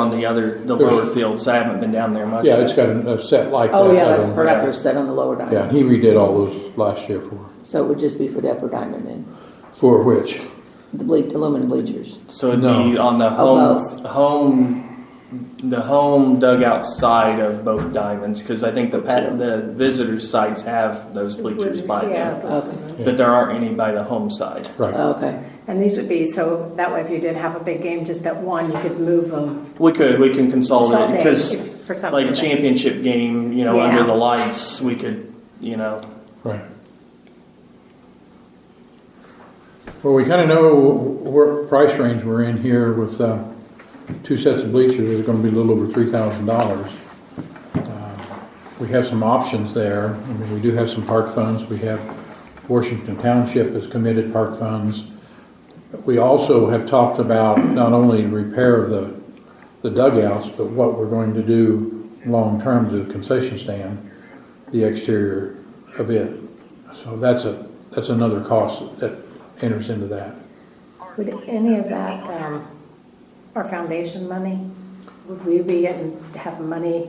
on the other, the lower fields. I haven't been down there much. Yeah, it's got a, a set like that. Oh, yeah, I that's don't- for effort set on the lower Yeah, diamond. he redid all those last year for, So it would just be for the upper diamond and for which? the ble- aluminum bleachers. So it'd be No. on the both. home, home, the home dugout side of both diamonds, because I think the pat, the visitor sites have those bleachers by Yeah, them. those- Okay. But there aren't any by the home side. Right, Oh, Okay. And these would be, so that way if you did have a big game, just at one, you could move them. We could, we can consolidate, Consolidate because if- for something like that- championship game, you know, Yeah. under the lights, we could, you know, right. Well, we kind of know wh- what price range we're in here with, uh, two sets of bleachers, it's gonna be a little over three thousand dollars. Uh, We have some options there, I mean, we do have some park funds, we have Washington Township has committed park funds. We also have talked about not only repair of the, the dugouts, but what we're going to do long-term to the concession stand, the exterior of it. So that's a, that's another cost that enters into that. Would any of that, um, our foundation money, would we be getting, have money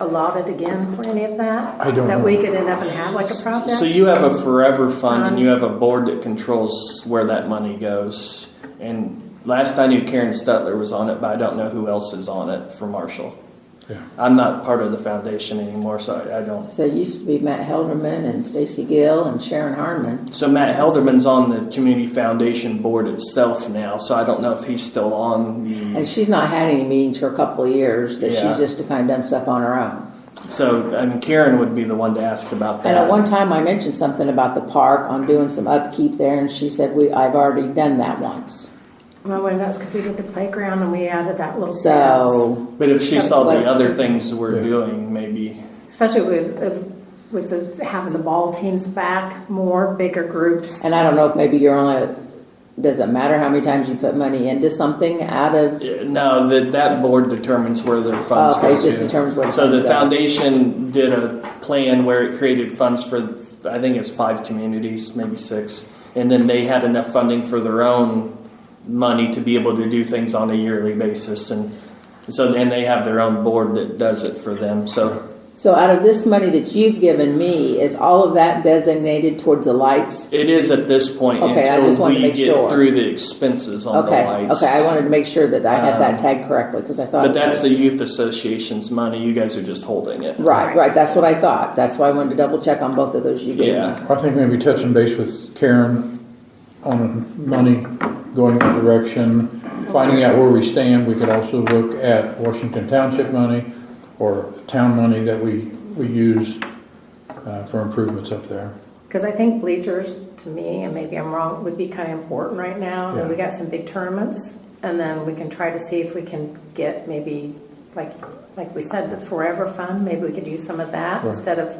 allotted again for any of that? I don't That know. we could end up and have like a project? So you have a forever fund and Fund. you have a board that controls where that money goes. And last I knew Karen Stutler was on it, but I don't know who else is on it for Marshall. Yeah. I'm not part of the foundation anymore, so I, I don't. So it used to be Matt Helderman and Stacy Gill and Sharon Harmon. So Matt Helderman's on the community foundation board itself now, so I don't know if he's still on And the. she's not had any meetings for a couple of years, that Yeah. she's just kind of done stuff on her own. So I mean, Karen would be the one to ask about that. And at one time, I mentioned something about the park on doing some upkeep there, and she said, "We, I've already done that once." Well, what if that's because we did the playground and we added that little fence? So but if she saw That's the what- other things we're Yeah. doing, maybe. Especially with, uh, with the, having the ball teams back, more bigger groups. And I don't know if maybe you're only, does it matter how many times you put money into something out of, Uh, No, that that board determines where their funds okay, go it's just to. in terms of what. So it the comes out. foundation did a plan where it created funds for, I think it's five communities, maybe six, and then they had enough funding for their own money to be able to do things on a yearly basis, and so and they have their own board that does it for them. So So out of this money that you've given me, is all of that designated towards the lights? it is at this point Okay, I until just wanted to we make get sure. through the expenses on Okay, the lights. Um, okay, I wanted to make sure that I had that tagged correctly, because I thought. but that's the youth association's money. You guys are just holding it. Right, right, that's what I thought, that's why I wanted to double check on both of those you gave me. Yeah. I think maybe touching base with Karen on money going in that direction, finding out where we stand. We could also look at Washington Township money or town money that we, we use uh, for improvements up there. Because I think bleachers, to me, and maybe I'm wrong, would be kind of important right now. I mean, we Yeah. got some big tournaments, and then we can try to see if we can get maybe, like, like we said, the Forever Fund, maybe we could use some of that Right. instead of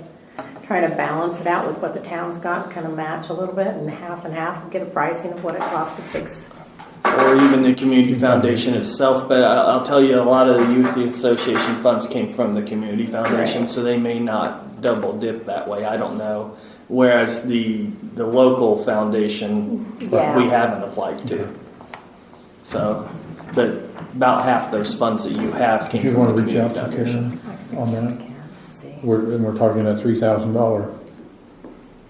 trying to balance it out with what the town's got, kind of match a little bit and half and half, and get a pricing of what it costs to fix. or even the community foundation itself. But I- I'll tell you, a lot of the youth association funds came from the community foundation, so they may not double dip that way. I don't know. Whereas the the local foundation, Yeah. we haven't applied to. So, but about half those funds that you have came Did you from want the to reach out community to foundation. Karen on that? See, We're, and we're talking that three thousand dollar,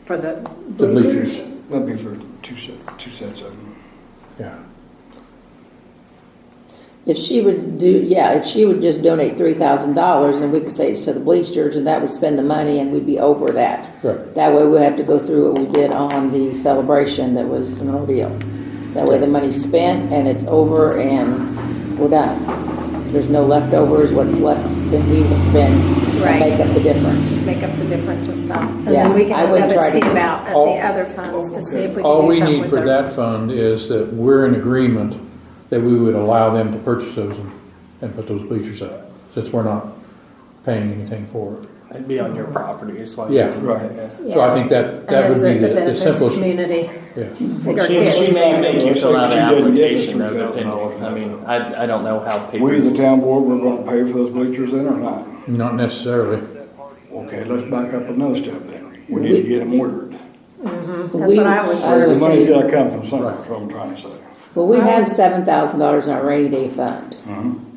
for the The bleachers. bleachers. That'd be for two sets, two sets of them. yeah. If she would do, yeah, if she would just donate three thousand dollars, then we could say it's to the bleachers, and that would spend the money, and we'd be over that. Right. That way, we have to go through what we did on the celebration that was an ordeal. That way, the money's spent and it's over, and we're done. There's no leftovers. What's left, then we will spend and Right. make up the difference. Make up the difference and stuff. And Yeah, then we I can would let try it to- see about at All- the other funds to see if we can do something with All we need for our- that fund is that we're in agreement that we would allow them to purchase those and, and put those bleachers up, since we're not paying anything for it. It'd be on your property, is why. Yeah. right. So I think that, that And would it's be the the the benefits simplest, Community. yeah. Like our She, she kids. may make you fill out an She didn't get the application, though, $3,000 depending. I mean, I, I don't know how people. We, the town board, we're gonna pay for those bleachers then or not? not necessarily. Okay, let's back up another step then. We need to get them ordered. That's what I was- I The was money's saying, gotta come from somewhere, is what I'm trying to say. well, we have seven thousand dollars in our rainy day fund.